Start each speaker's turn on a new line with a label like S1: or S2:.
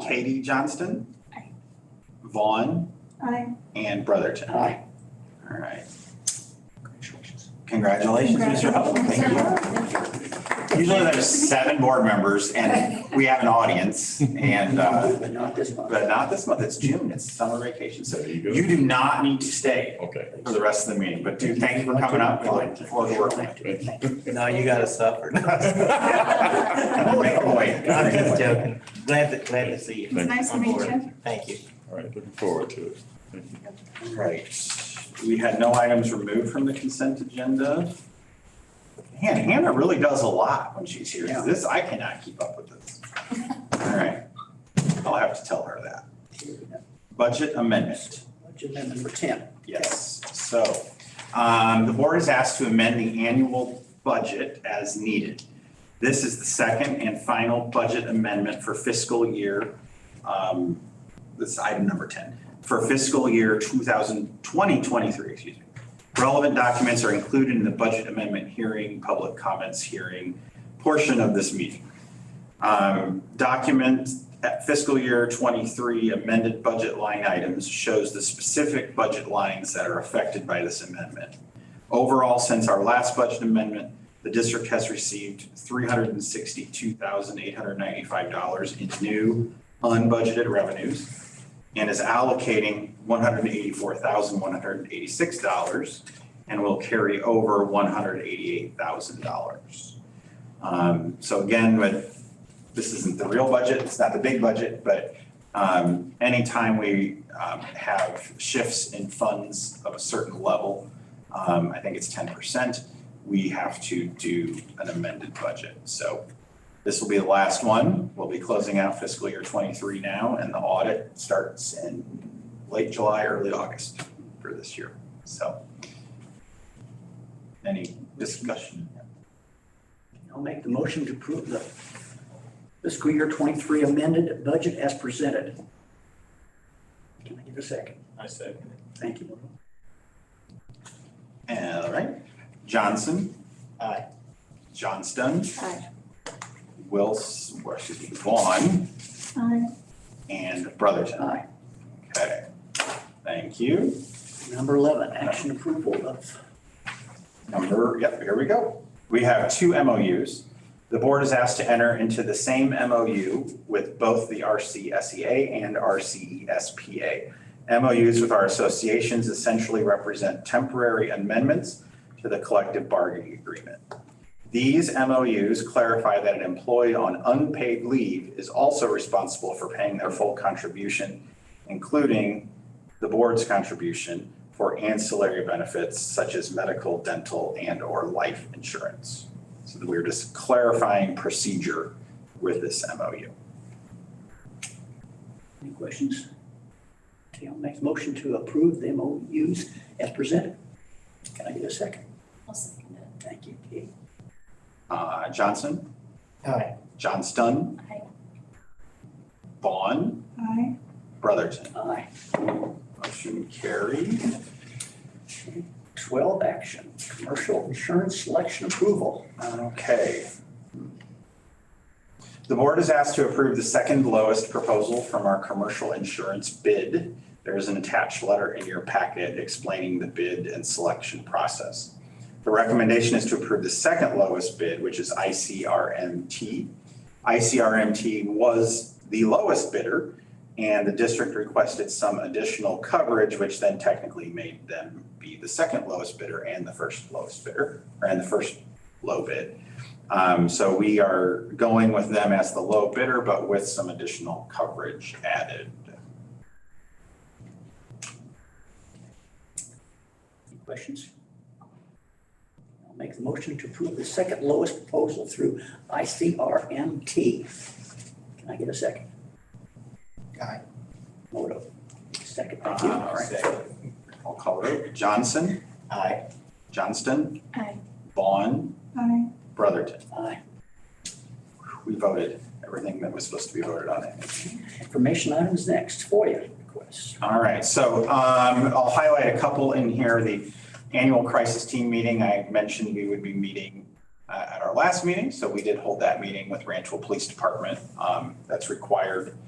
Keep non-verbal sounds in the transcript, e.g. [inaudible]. S1: Katie Johnston. Vaughn
S2: Aye.
S1: and Brotherton.
S3: Aye.
S1: All right. Congratulations, Mr. Hubble. Thank you. Usually there's seven board members and we have an audience and, uh,
S3: But not this month.
S1: but not this month. It's June. It's summer vacation. So
S4: There you
S1: you
S4: go.
S1: do not need to stay
S4: Okay.
S1: for the rest of the meeting, but do thank you for coming up. We look forward to working with
S5: [laughs] No, you gotta suffer. [laughs]
S1: you. Make a way.
S5: I'm just joking. Glad to, glad to see you.
S4: It's
S2: nice to
S5: On
S2: meet
S5: board.
S2: you.
S5: Thank you.
S4: All right, looking forward to it. Thank you.
S1: Right. We had no items removed from the consent agenda. Man, Hannah really does a lot when she's here.
S3: Yeah.
S1: This, I cannot keep up with this. All right. I'll have to tell her that. Budget amendment.
S3: Budget amendment number ten.
S1: Yes, so um, the board is asked to amend the annual budget as needed. This is the second and final budget amendment for fiscal year, um, this is item number 10, for fiscal year 2020, 23, excuse me. Relevant documents are included in the budget amendment hearing, public comments hearing portion of this meeting. Um, Document at fiscal year '23 amended budget line items shows the specific budget lines that are affected by this amendment. Overall, since our last budget amendment, the district has received $362,895 in new unbudgeted revenues and is allocating $184,186 and will carry over $188,000. Um, So again, with this isn't the real budget, it's not the big budget, but um, anytime we um, have shifts in funds of a certain level, um, I think it's ten percent, we have to do an amended budget. So this will be the last one. We'll be closing out fiscal year twenty-three now, and the audit starts in late July, early August for this year. So any discussion?
S3: I'll make the motion to approve the fiscal year twenty-three amended budget as presented. Can I get a second?
S5: I second
S3: Thank you.
S1: All right, Johnson.
S5: Aye.
S1: Johnston.
S2: Aye.
S1: Wills, or excuse me, Vaughn
S2: Aye.
S1: and Brotherton.
S3: Aye.
S1: Okay, thank you.
S3: Number eleven, action approval of,
S1: Number, yep, here we go. We have two MOUs. The board is asked to enter into the same MOU with both the RCSEA E and E RCESPA. MOUs with our associations essentially represent temporary amendments to the collective bargaining agreement. These MOUs clarify that an employee on unpaid leave is also responsible for paying their full contribution, including the board's contribution for ancillary benefits such as medical, dental, and/or life insurance. So that we're just clarifying procedure with this MOU.
S3: any questions? Okay, I'll make the motion to approve the MOUs as presented. Can I get a second?
S2: I'll second it.
S3: Thank you, Kate.
S1: Uh, Johnson,
S5: it. Aye.
S1: Johnston,
S2: Aye.
S1: Vaughn,
S2: Aye.
S1: Brotherton.
S3: Aye.
S1: Motion carried.
S3: Twelve, action, commercial insurance selection approval.
S1: Okay. The board is asked to approve the second lowest proposal from our commercial insurance bid. There is an attached letter in your packet explaining the bid and selection process. The recommendation is to approve the second lowest bid, which is ICRMT. ICRMT was the lowest bidder, and the district requested some additional coverage, which then technically made them be the second lowest bidder and the first lowest bidder, and the first low bid. Um, so we are going with them as the low bidder, but with some additional coverage added.
S3: Any questions? I'll make the motion to approve the second lowest proposal through ICRMT. Can I get a second?
S5: Aye.
S3: Moto, second, thank you.
S1: All right. Uh, I'll call it Johnson,
S5: Aye.
S1: Johnston,
S2: Aye.
S1: Vaughn,
S2: Aye.
S1: Brotherton.
S3: Aye.
S1: We voted everything that was supposed to be voted on.
S3: Information items next, FOIA requests.
S1: All right, so um, I'll highlight a couple in here. The annual crisis team meeting, I mentioned we would be meeting uh, at our last meeting, so we did hold that meeting with Rancho Police Department. Um, That's required